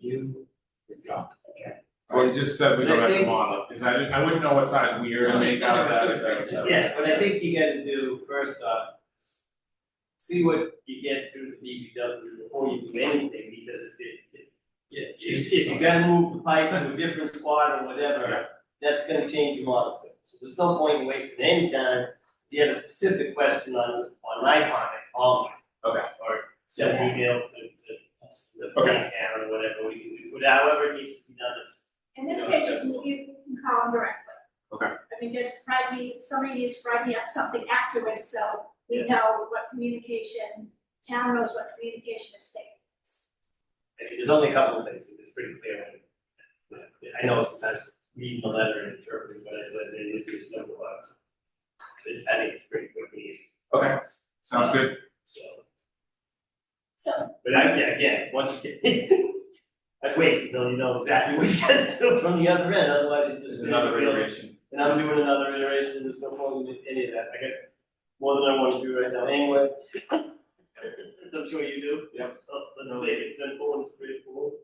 you, your job. Or just that we don't have I to think- model, cause I didn't, I wouldn't know what size we are to make out of that, so. Yeah, but I think you gotta do first off. See what you get through the DPW before you do anything, because it- it- Yeah, if if you gotta move the pipe to a different spot or whatever, that's gonna change your model too. So there's no point in wasting any time, if you have a specific question on on my comment, call me. Okay. Or send an email to to the Okay. town or whatever, we can do, whatever needs to be done, it's In this case, you can, you can call them directly. Okay. I mean, just write me, somebody needs to write me up something afterwards, so we know what communication, town knows what communication is taking. place. I mean, there's only a couple of things that is pretty clear. when- when- I know sometimes reading the letter and interpreting what it's like, and looking at some of that. But I think it's pretty quick and easy, Okay, sounds good. so, So but I, yeah, again, once you get. I'd wait until you know exactly what you gotta do from the other end, otherwise it There's just. another iteration. And I'm doing another iteration, there's no point in any of that, I got more than I wanna do right now anyway. As I'm sure you do. Yep. Oh, but no, it's simple and straightforward.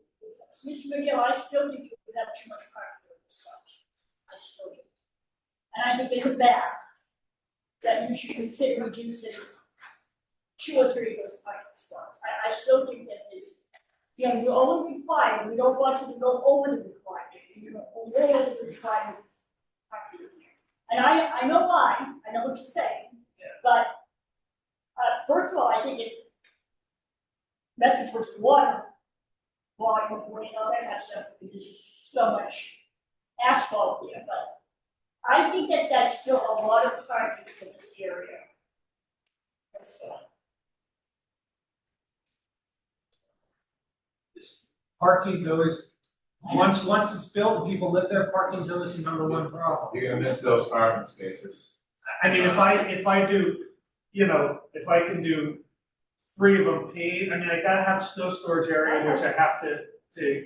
Mr. McGill, I still think you have too much carpet and such. I still do. And I think in the back, that you should consider reducing two or three of those parking spots. I, I still think that is, you know, you're only required, we don't want you to go over the requirement, you know, way over the requirement. parking. And I, I know why, I know what you're saying. Yeah. But, uh, first of all, I think it messes with water volume of weight, all that kind of stuff, because there's so much asphalt there, but I think that that's still a lot of parking for this area. That's all. this parking's always, once, once it's built, and people live there, parking's always the number one problem. You're gonna miss those parking spaces. I mean, if I, if I do, you know, if I can do three of them paved, I mean, I gotta have snow storage area, which I have to, to,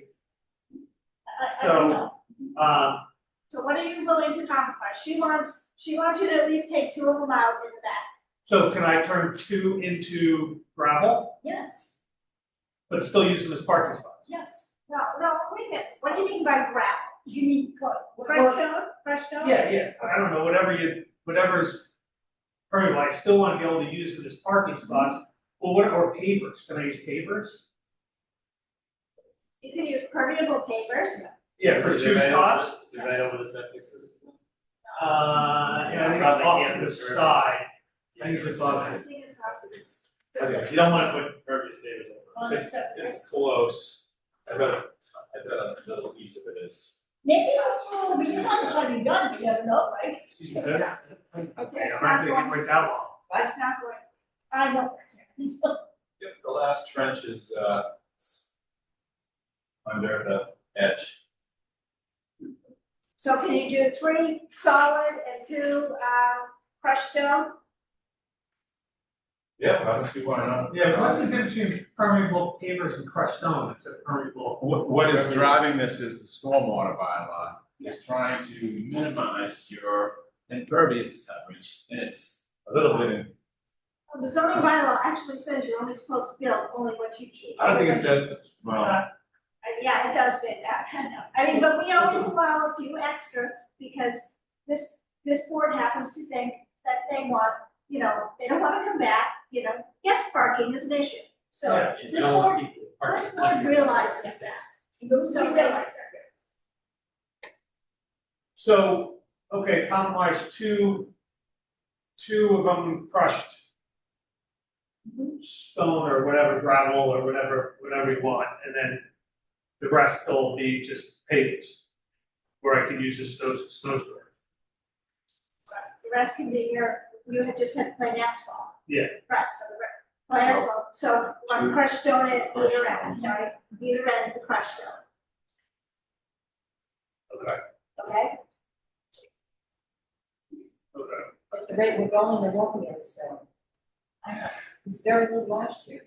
I, I don't know, um, So what are you willing to compromise? She wants, she wants you to at least take two of them out in the back. so can I turn two into gravel, yes, but still use them as parking spots? yes, No, no, wait a minute, what do you mean by gravel? you need, what, Fresh stone, fresh stone? Yeah, yeah, I don't know, whatever you, whatever's permeable, I still wanna be able to use them as parking spots, or what, or pavers, can I use pavers? You can use permeable pavers. Yeah, for Is it two right over- spots? Is it right over the septic system? Uh, yeah, I think Probably off can't to the reserve. side, I think it's I above it. think it's obvious. You don't wanna put verbiage there. on the subject. It's close. I bet, I bet a little piece of it is. Maybe also, we have not time to done, you never know, right? Yeah, that- Okay, yeah, it's I'm not not gonna going, get quite that long. it's not going. I know. Yep, the last trench is, uh, under the edge. So can you do three solid and two, uh, crushed stone? Yeah, I don't see why not. Yeah, but what's the difference between permeable pavers and crushed stone, it's a permeable. What, what is driving this is the stormwater bylaw, is trying to minimize your impervious coverage, and it's a little bit. The zoning bylaw actually says you're only supposed to build only what you need. I don't think it said, well, Uh, Yeah, it does say that, I mean, but we always allow a few extra, because this, this board happens to think that they want, you know, they don't wanna come back, you know, yes, parking is an issue. So this board, this board realizes that, Those so are realize realized. that. So, okay, compromise, two, two of them crushed stone or whatever, gravel or whatever, whatever you want, and then the rest will be just pavers, where I can use this snow, snow storage. The rest can be your, you had just had plain asphalt. Yeah. Right, so the, re- plain So- asphalt, so one Two. crushed stone at Crushed either end, right? Either end of the crushed stone. Okay. Okay, Okay. At the rate we're going, there won't be any snow. It's very little last year.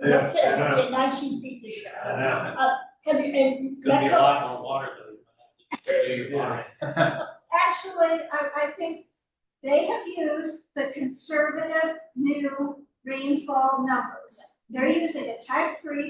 That's it, Yeah, I know. it's nineteen feet this year. I know. Have you, and Gonna that's be a all. lot more water though. Yeah. actually, I, I think they have used the conservative new rainfall numbers. They're using a type three